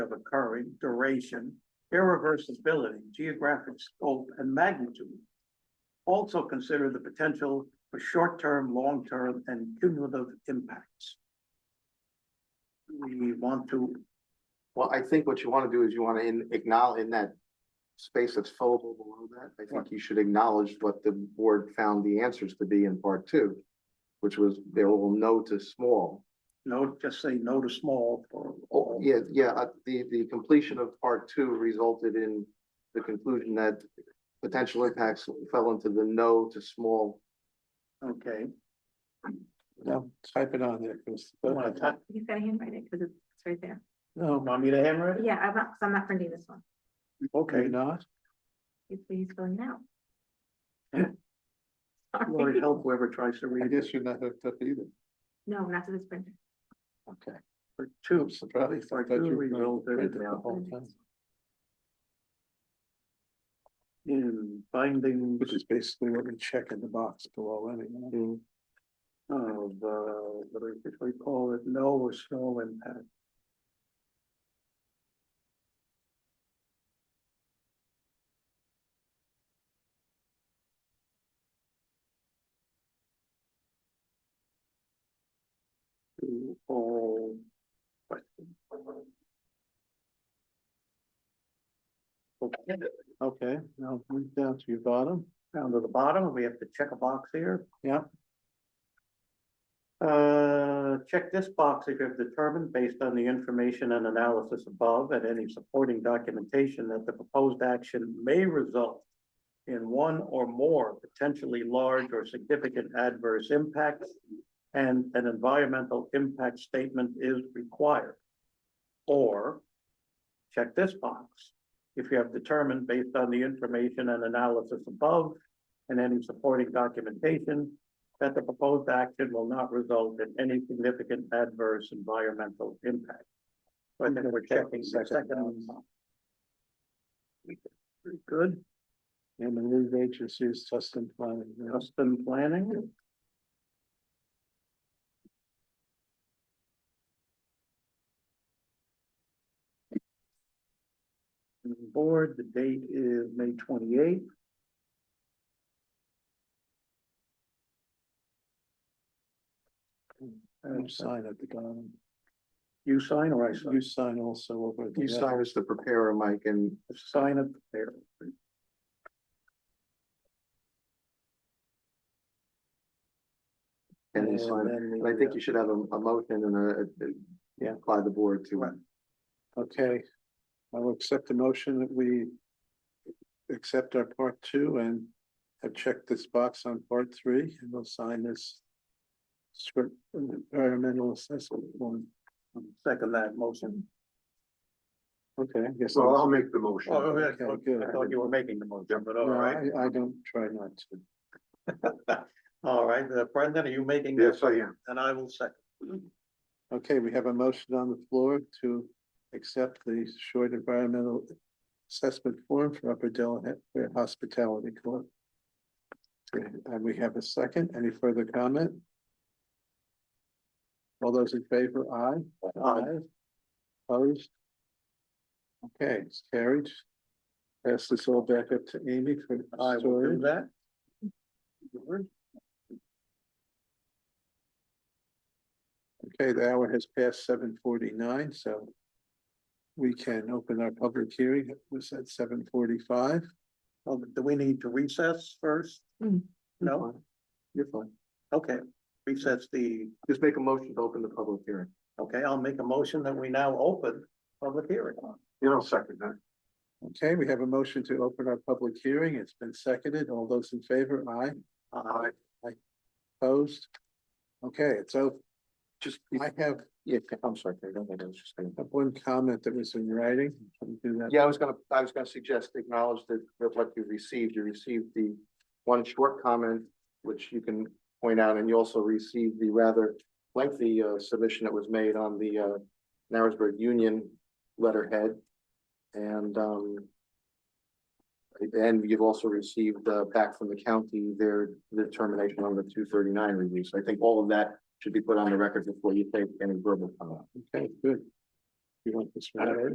occurring, duration, irreversibility, geographic scope, and magnitude. Also consider the potential for short-term, long-term, and cumulative impacts. We want to, Well, I think what you want to do is you want to in, acknowledge in that space that's fillable below that, I think you should acknowledge what the board found the answers to be in part two, which was they will no to small. no, just say no to small or. Oh, yeah, yeah, uh, the, the completion of part two resulted in the conclusion that potential impacts fell into the no to small. Okay, No, type it on there, because. you wanna type- He's gotta handwrite it, cause it's it's right there. No, want me to hammer it? Yeah, I'm not, 'cause I'm not printing this one. okay, Okay, not, He's, he's filling it out. Yeah. Lord Sorry. help whoever tries to I read it guess you're not hooked up either, No, not to this printer. okay. for two. I'm surprised. Part that two you resulted in printed the the whole thing, In findings Which is basically what we check in the box below anyway. Mm-hmm. of, uh, what do we- what do we call it, no or snow impact. To all questions. Okay, Okay, now move down to your bottom, down to the bottom, we have to check a box here. Yeah. Uh, check this box if you have determined based on the information and analysis above and any supporting documentation that the proposed action may result in one or more potentially large or significant adverse impacts and an environmental impact statement is required. Or check this box if you have determined based on the information and analysis above and any supporting documentation that the proposed action will not result in any significant adverse environmental impact. So I think we're checking the second one. Very good, and the lead agency is Tustin Planning. yeah. custom planning. And the Board, the date is May twenty-eighth. You sign at the bottom, You sign or I sign? you sign also over. at the You left. sign as the preparer, Mike, and the sign up there. And And you sign it. then And I the, think you should have a, a motion and a- a. Yeah. By the board to, Right. Okay, I will accept the motion that we accept our part two and have checked this box on part three, and we'll sign this script environmental assessment form. Second that motion. Okay, I guess. Well, I'll make the motion. Oh, yeah. okay, good. I thought you were making the motion, but all No, right. I, I don't try not to. All right, uh, Brendan, are you making? that? Yes, I am. And I will second. Okay, we have a motion on the floor to accept the short environmental assessment form for Upper Delaware Hospitality Corp. And we have a second. Any further comment? All those in favor, aye? Aye. Opposed? Okay, it's carried. Pass this all back up to Amy for I will do storage. that. Okay, the hour has passed seven forty-nine, so we can open our public hearing. It was at seven forty-five. Well, Oh, Do we need to recess first? Mm. No? you're fine. Okay, recess the, Just make a motion to open the public hearing. okay, I'll make a motion that we now open public hearing. You know, second that. Okay, we have a motion to open our public hearing. It's been seconded. All those in favor, aye, Uh, opposed? Okay, it's open. Just, I have, yeah, I'm sorry, Craig, I don't think I was just gonna. have one comment that was in writing. Can we do that? Yeah, I was gonna, I was gonna suggest acknowledge that that what you received, you received the one short comment, which you can point out, and you also received the rather lengthy uh submission that was made on the uh Narrowsburg Union letterhead. And um and you've also received uh back from the county their determination on the two thirty-nine release. I think all of that should be put on the record before you take any verbal comment. Okay, good. You want this one?